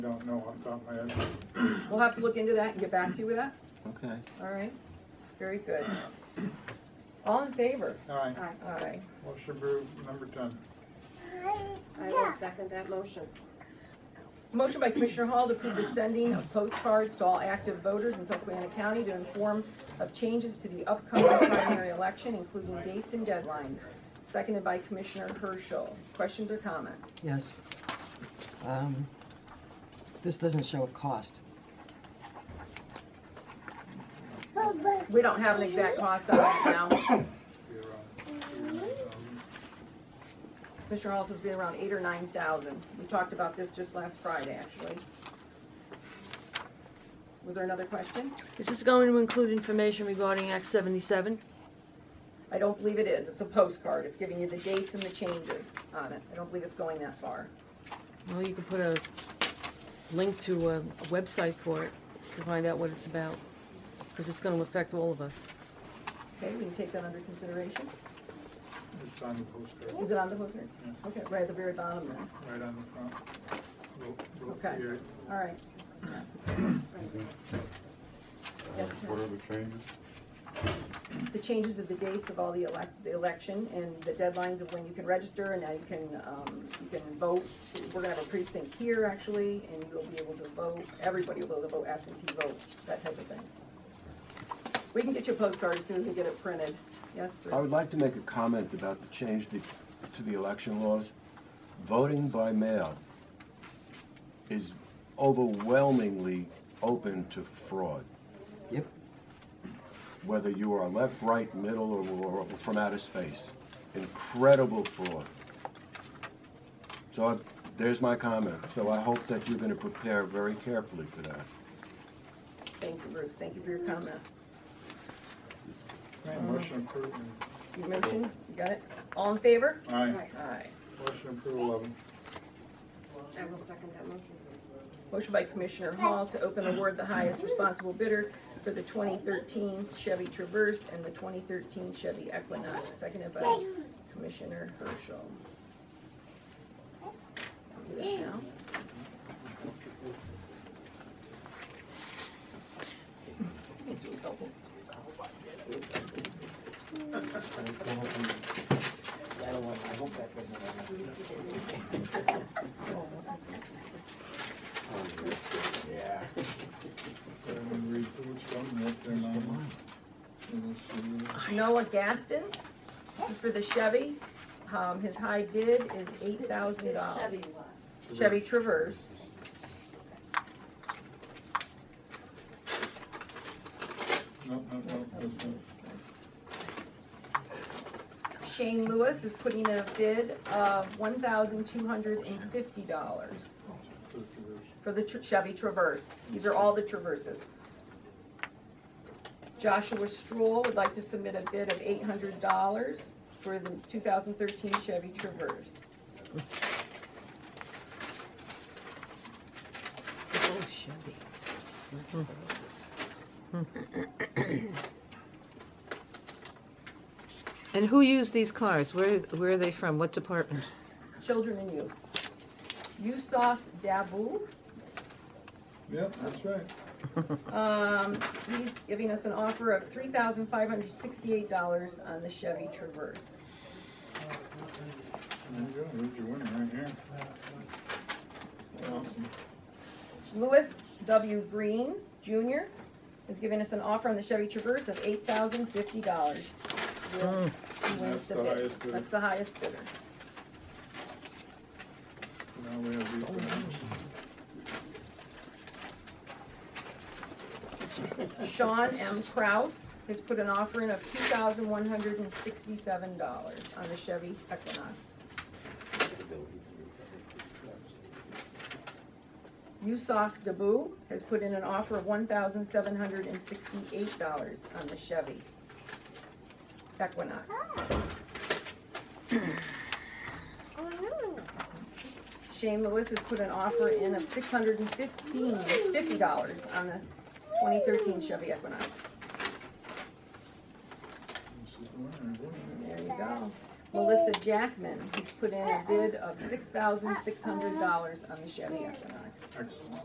Don't know off the top of my head. We'll have to look into that and get back to you with that, Okay. all right? Very good. All in favor? All right, All right. motion approved, number ten. I will second that motion. Motion by Commissioner Hall to approve the sending of postcards to all active voters in Susquehanna County to inform of changes to the upcoming primary election, including dates and deadlines. Seconded by Commissioner Herschel. Questions or comments? Yes. Um, This doesn't show a cost. We don't have an exact cost on it now. Be around. Commissioner Hall says it'll be around eight or nine thousand. We talked about this just last Friday, actually. Was there another question? Is this going to include information regarding Act 77? I don't believe it is. It's a postcard. It's giving you the dates and the changes on it. I don't believe it's going that far. Well, you could put a link to a a website for it to find out what it's about, because it's going to affect all of us. Okay, we can take that under consideration. It's on the postcard, Is it on the postcard? Okay, right at the very bottom there. right on the front. Ro- ro- Okay. yeah. All right. Yes, What yes. are the changes? The changes of the dates of all the elec- the election and the deadlines of when you can register and now you can, um, you can vote. We're gonna have a precinct here actually, and you'll be able to vote, everybody will be able to vote absentee vote, that type of thing. We can get you a postcard as soon as we get it printed. Yes, I would Drew? like to make a comment about the change the- to the election laws. Voting by mail is overwhelmingly open to fraud. Yep. whether you are left, right, middle, or, or from outer space. Incredible fraud. So I- there's my comment. So I hope that you're going to prepare very carefully for that. Thank you, Bruce. Thank you for your comment. Right, Motion approved, and- You mentioned, you got it? All in favor? all right, Right, All right. motion approved, eleven. I will second that motion. Motion by Commissioner Hall to open award the highest responsible bidder for the 2013 Chevy Traverse and the 2013 Chevy Equinox, seconded by Commissioner Herschel. I'll do that now. Everyone read through which one, what they're on. And we'll see. Noah Gaston, this is for the Chevy. Um, His high bid is $8,000. Chevy Traverse. No, no, no, that's not. Shane Lewis is putting in a bid of $1,250. That's the verse. for the Tr- Chevy Traverse. These are all the Traverses. Joshua Stroll would like to submit a bid of eight hundred dollars for the two thousand thirteen Chevy Traverse. Oh, Chevys. And who used these cars? Where, where are they from? What department? Children and youth. Yusuf Dabu, Yep, that's right. um, he's giving us an offer of three thousand five hundred sixty-eight dollars on the Chevy Traverse. There you go, there's your winner right here. Awesome. Louis W. Green Jr. is giving us an offer on the Chevy Traverse of eight thousand fifty dollars. That's the highest bidder. That's the highest bidder. Now we have these things. Sean M. Kraus has put an offer in of two thousand one hundred and sixty-seven dollars on the Chevy Equinox. Yusuf Dabu has put in an offer of one thousand seven hundred and sixty-eight dollars on the Chevy Equinox. Shane Lewis has put an offer in of six hundred and fifteen, fifty dollars on the twenty thirteen Chevy Equinox. This is the winner, boy. There you go. Melissa Jackman, who's put in a bid of six thousand six hundred dollars on the Chevy Equinox. Excellent.